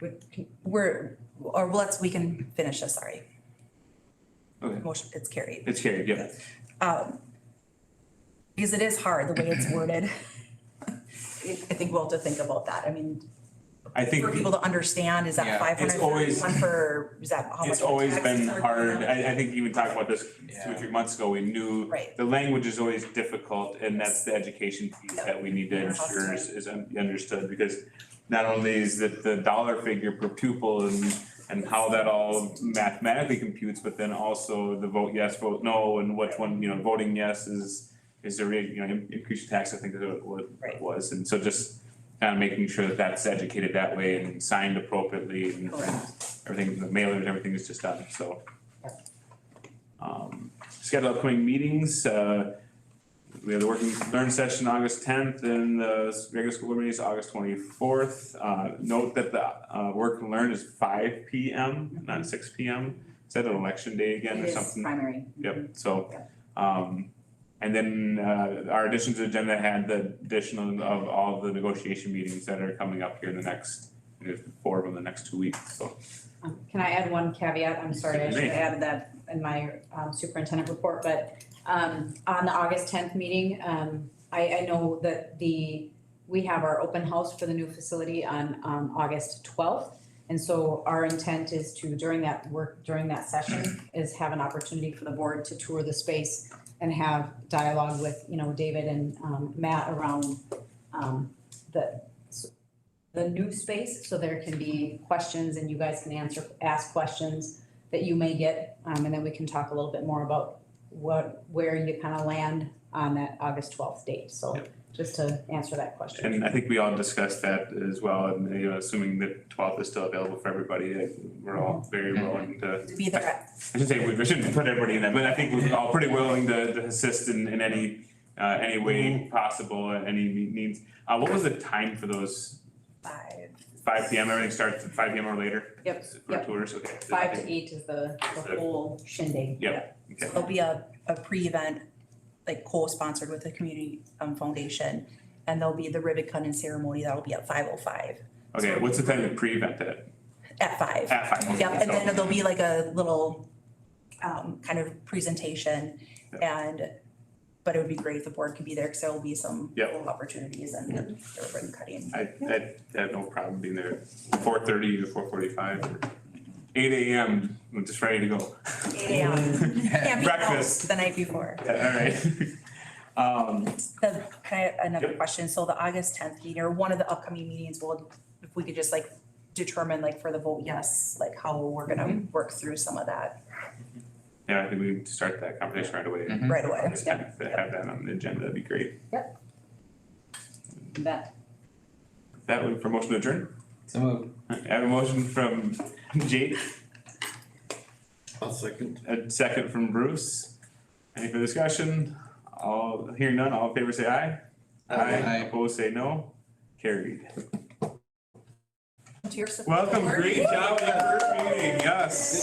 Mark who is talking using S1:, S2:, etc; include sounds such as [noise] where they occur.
S1: we- we're, or let's, we can finish this, sorry.
S2: Okay.
S1: Motion, it's carried.
S2: It's carried, yeah.
S1: Because it is hard, the way it's worded. I think we'll have to think about that. I mean,
S2: I think
S1: for people to understand, is
S2: Yeah,
S1: that
S2: it's
S1: five hundred
S2: always-
S1: thirty-one for, is that how much?
S2: it's always been
S1: taxes are going
S2: hard.
S1: up?
S2: I, I think even talking about this two or
S3: Yeah.
S2: three months ago, we knew
S1: Right.
S2: the language is always difficult and that's the education piece
S1: Yep.
S2: that we need to
S1: Yeah.
S2: ensure is, is un- understood because not only is it the dollar figure per pupil and, and how that all mathematically computes, but then also the vote yes, vote no, and which one, you know, voting yes is, is the rate, you know, in- increase in tax, I think is what- what
S1: Right.
S2: it was. And so just kind of making sure that that's educated that way and signed appropriately and
S1: Correct.
S2: everything, the mailers, everything is just done, so. Um, schedule upcoming meetings, uh, we have the working learn session August tenth and the regular school board meeting is August twenty-fourth. Uh, note that the, uh, work and learn is five P M, not six P M. Is that an election day again or
S1: It
S2: something?
S1: is primary.
S2: Yep, so,
S1: Yep.
S2: um, and then, uh, our additions to the agenda had the additional of all the negotiation meetings that are coming up here in the next, there's four of them in the next two weeks, so.
S4: Um, Can I add one caveat? I'm sorry, I should
S2: Certainly.
S4: have added that in my um, superintendent report, but um, on the August tenth meeting, um, I, I know that the, we have our open house for the new facility on um, August twelfth. And so our intent is to, during that work, during that session, is have an opportunity for the board to tour the space and have dialogue with, you know, David and um, Matt around um, the, the new space, so there can be questions and you guys can answer, ask questions that you may get, um, and then we can talk a little bit more about what, where you kind of land on that August twelfth date, so just to answer that question.
S2: And I think we all discussed that as well, and you know, assuming that twelfth is still available for everybody, I think we're all very willing to,
S1: To be there at
S2: I should say, we we shouldn't put everybody in that, but I think we're all pretty willing to to assist in in any uh any way possible, and any me- means. Uh what was the time for those
S1: five.
S2: five P M, everything starts at five P M or later?
S4: Yep,
S2: For
S4: yep.
S2: tours, okay.
S4: Five to eight is the, the
S2: Is it-
S4: whole shindig.
S2: Okay.
S1: There'll be a, a pre-event, like co-sponsored with the community um foundation. And there'll be the ribbon cutting ceremony. That'll be at five oh five,
S2: Okay, what's the time to pre-event that?
S1: at five.
S2: At five, okay,
S1: Yep, and
S2: so-
S1: then there'll be like a little um kind of presentation and but it would be great if the board could be there because there will be some
S2: Yep.
S1: little opportunities and the ribbon cutting.
S2: I, I I have no problem being there, four thirty to four forty-five, or eight AM, I'm just ready to go.
S1: Eight AM. Can't
S2: [laughs]
S1: be
S2: Breakfast.
S1: out the night before.
S2: [laughs] Yeah, All right. [laughs] Um,
S1: The, can I, have another
S2: Yep.
S1: question, so the August tenth meeting, or one of the upcoming meetings, will, if we could just like determine like for the vote yes, like how we're gonna work through some of that
S2: yeah, I think we need to start that conversation right away.
S3: Mhm.
S1: right away.
S2: Just have to have that on the agenda, that'd be great.
S4: That,
S2: That would, for motion to adjourn,
S3: So moved.
S2: I have a motion from Jake,
S5: I'll second.
S2: a second from Bruce. Any further discussion? All, hearing none, all in favor say aye. Uh,
S3: Aye.
S2: Opposed say no, carried.
S1: To your support.
S2: Welcome, great job, with that first meeting, yes.